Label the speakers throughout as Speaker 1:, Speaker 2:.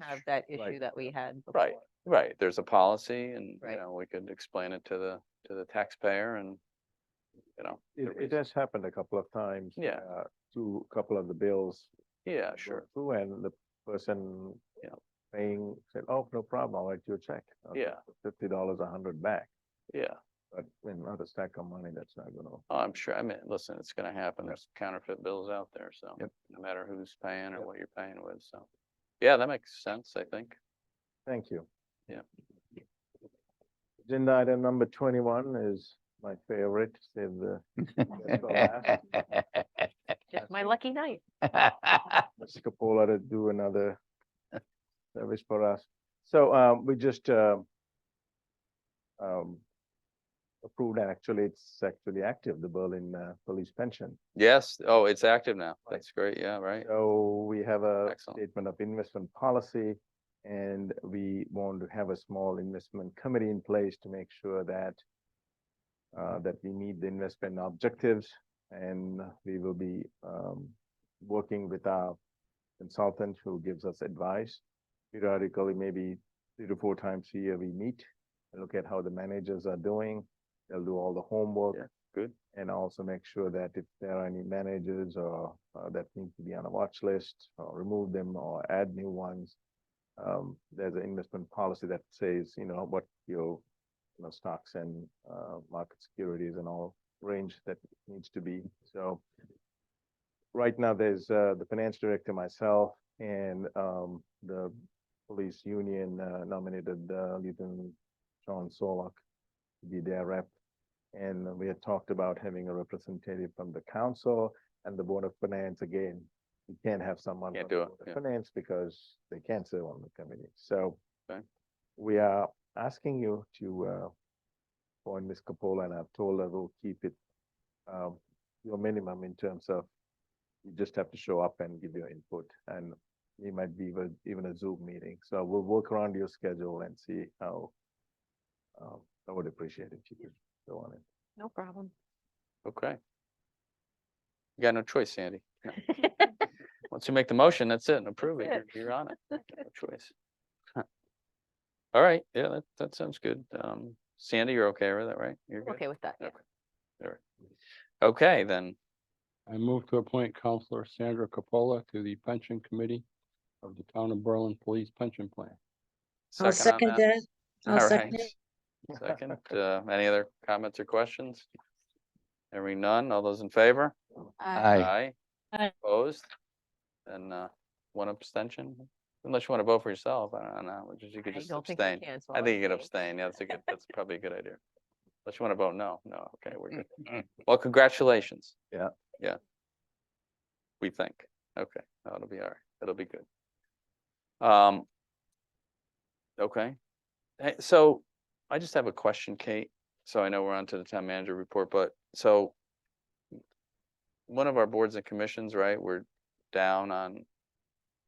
Speaker 1: have that
Speaker 2: Right.
Speaker 1: issue that we had before.
Speaker 2: Right. Right, there's a policy and, you
Speaker 1: Right.
Speaker 2: know, we could explain it to the, to the taxpayer and, you know.
Speaker 3: It,
Speaker 2: the
Speaker 3: it
Speaker 2: reason.
Speaker 3: has happened a couple of times.
Speaker 2: Yeah.
Speaker 3: uh, To a couple of the bills.
Speaker 2: Yeah,
Speaker 3: go
Speaker 2: sure.
Speaker 3: Through and the person.
Speaker 2: Yeah.
Speaker 3: Paying said, oh, no problem, I'll write you a check. I'll take
Speaker 2: Yeah,
Speaker 3: Fifty dollars, a hundred back,
Speaker 2: yeah.
Speaker 3: but in other stack of money, that's not gonna.
Speaker 2: I'm sure, I mean, listen, it's gonna happen.
Speaker 3: Yep.
Speaker 2: There's counterfeit bills out there, so
Speaker 3: Yep.
Speaker 2: no matter who's paying or
Speaker 3: Yep.
Speaker 2: what you're paying with, so. Yeah, that makes sense, I think.
Speaker 3: Thank you.
Speaker 2: Yeah.
Speaker 3: Agenda item number twenty-one is my favorite, save the. best for last.
Speaker 1: Just my lucky night.
Speaker 3: Mr. Capola to do another service for us. So um, we just uh, um, approved, and actually, it's actually active, the Berlin uh, Police Pension.
Speaker 2: Yes, oh, it's active now.
Speaker 3: Right.
Speaker 2: That's great, yeah, right.
Speaker 3: So we have a
Speaker 2: Excellent.
Speaker 3: statement of investment policy, and we want to have a small investment committee in place to make sure that uh, that we meet the investment objectives, and we will be um, working with our consultant who gives us advice. Periodically, maybe three to four times a year, we meet, and look at how the managers are doing. They'll do all the homework
Speaker 2: Yeah, good.
Speaker 3: and also make sure that if there are any managers or uh, that need to be on a watch list or remove them or add new ones. Um, there's an investment policy that says, you know, what your, you know, stocks and uh, market securities and all range that needs to be, so. Right now, there's uh, the finance director, myself, and um, the police union uh, nominated uh, Lieutenant John Solak to be their rep. And we had talked about having a representative from the council and the Board of Finance again. You can't have someone.
Speaker 2: Can't
Speaker 3: from the
Speaker 2: do it,
Speaker 3: Board of
Speaker 2: yeah.
Speaker 3: Finance because they can't serve on the committee. So
Speaker 2: Okay.
Speaker 3: we are asking you to uh, appoint Ms. Capola and I've told her we'll keep it um, your minimum in terms of you just have to show up and give your input and it might be even, even a Zoom meeting. So we'll work around your schedule and see how um, I would appreciate it if you could go on it.
Speaker 1: No problem.
Speaker 2: Okay. You got no choice, Sandy. No. Once you make the motion, that's it, and approve it,
Speaker 1: That's
Speaker 2: you're, you're on it, no choice. Huh. All right, yeah, that, that sounds good. Um, Sandy, you're okay with that, right? You're good?
Speaker 1: Okay with that. yeah.
Speaker 2: Okay. All right. Okay, then,
Speaker 4: I move to appoint Counselor Sandra Capola to the Pension Committee of the Town of Berlin Police Pension Plan.
Speaker 5: I'll
Speaker 2: second
Speaker 5: second
Speaker 2: on that.
Speaker 5: that. I'll
Speaker 2: All
Speaker 5: second
Speaker 2: right.
Speaker 5: it.
Speaker 2: Second, uh, any other comments or questions? Hearing none, all those in favor?
Speaker 1: Uh,
Speaker 5: Aye.
Speaker 2: Opposed? And, uh, one abstention, unless you want to vote for yourself, I don't know, which is you
Speaker 1: I
Speaker 2: could just
Speaker 1: don't think you
Speaker 2: abstain.
Speaker 1: can, so
Speaker 2: I
Speaker 1: I'll
Speaker 2: think you could
Speaker 1: abstain.
Speaker 2: abstain, yeah, that's a good, that's probably a good idea. Unless you want to vote no, no, okay, we're good. Well, congratulations.
Speaker 3: Yeah.
Speaker 2: Yeah. We think, okay, no, it'll be all right, it'll be good. Um. Okay, Hey, so I just have a question, Kate, so I know we're on to the town manager report, but so. One of our boards and commissions, right, we're down on,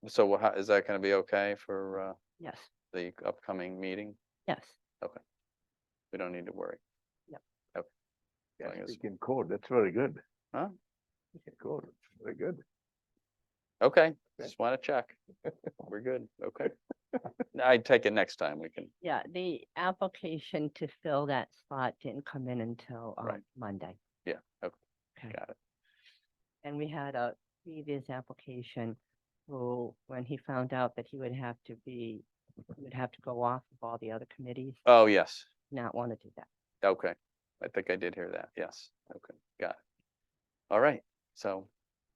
Speaker 2: so wha- how, is that gonna be okay for, uh?
Speaker 1: Yes,
Speaker 2: the upcoming meeting,
Speaker 1: yes.
Speaker 2: we don't need to worry.
Speaker 3: Yeah,
Speaker 2: I guess-
Speaker 3: speak in code, that's very good.
Speaker 2: Huh?
Speaker 3: Speak in Code, very good.
Speaker 2: Okay,
Speaker 3: Okay.
Speaker 2: just want to check. We're good, okay. I take it next time we can,
Speaker 1: Yeah, the application to fill that spot didn't come in until um,
Speaker 2: Right.
Speaker 1: Monday.
Speaker 2: Yeah, okay.
Speaker 1: Okay.
Speaker 2: Got it.
Speaker 1: And we had a previous application who, when he found out that he would have to be, he would have to go off of all the other committees,
Speaker 2: oh, yes,
Speaker 1: not want to do that.
Speaker 2: okay. I think I did hear that, yes, okay, got it. All right, so,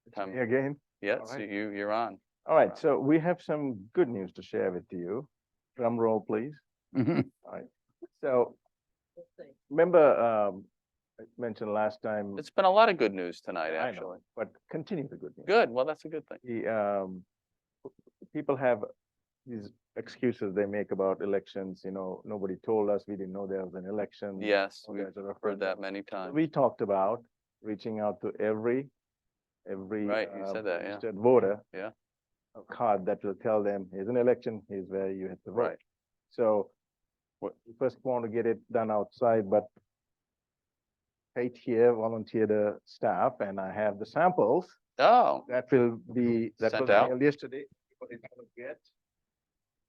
Speaker 3: It's
Speaker 2: Tom,
Speaker 3: me Again,
Speaker 2: yeah,
Speaker 3: all
Speaker 2: so
Speaker 3: right.
Speaker 2: you, you're on.
Speaker 3: all right, so we have some good news to share with you. Drum roll, please.
Speaker 2: Mm-hmm.
Speaker 3: So remember, um, I mentioned last time,
Speaker 2: It's been a lot of good news tonight,
Speaker 3: I know.
Speaker 2: actually.
Speaker 3: but continue the good news.
Speaker 2: Good, well, that's a good thing.
Speaker 3: the um, people have these excuses they make about elections, you know, nobody told us, we didn't know there was an election.
Speaker 2: Yes,
Speaker 3: or
Speaker 2: we've
Speaker 3: there's a
Speaker 2: heard that
Speaker 3: referendum.
Speaker 2: many times.
Speaker 3: We talked about reaching out to every, every.
Speaker 2: Right, you said
Speaker 3: um,
Speaker 2: that, yeah.
Speaker 3: registered Voter.
Speaker 2: Yeah.
Speaker 3: A card that will tell them, here's an election, here's where you have to vote.
Speaker 2: Right,
Speaker 3: So
Speaker 2: What-
Speaker 3: we first want to get it done outside, but Kate here volunteered the staff and I have the samples
Speaker 2: oh,
Speaker 3: that will be, that
Speaker 2: Sent
Speaker 3: was
Speaker 2: out?
Speaker 3: mailed yesterday. Everybody's gonna get.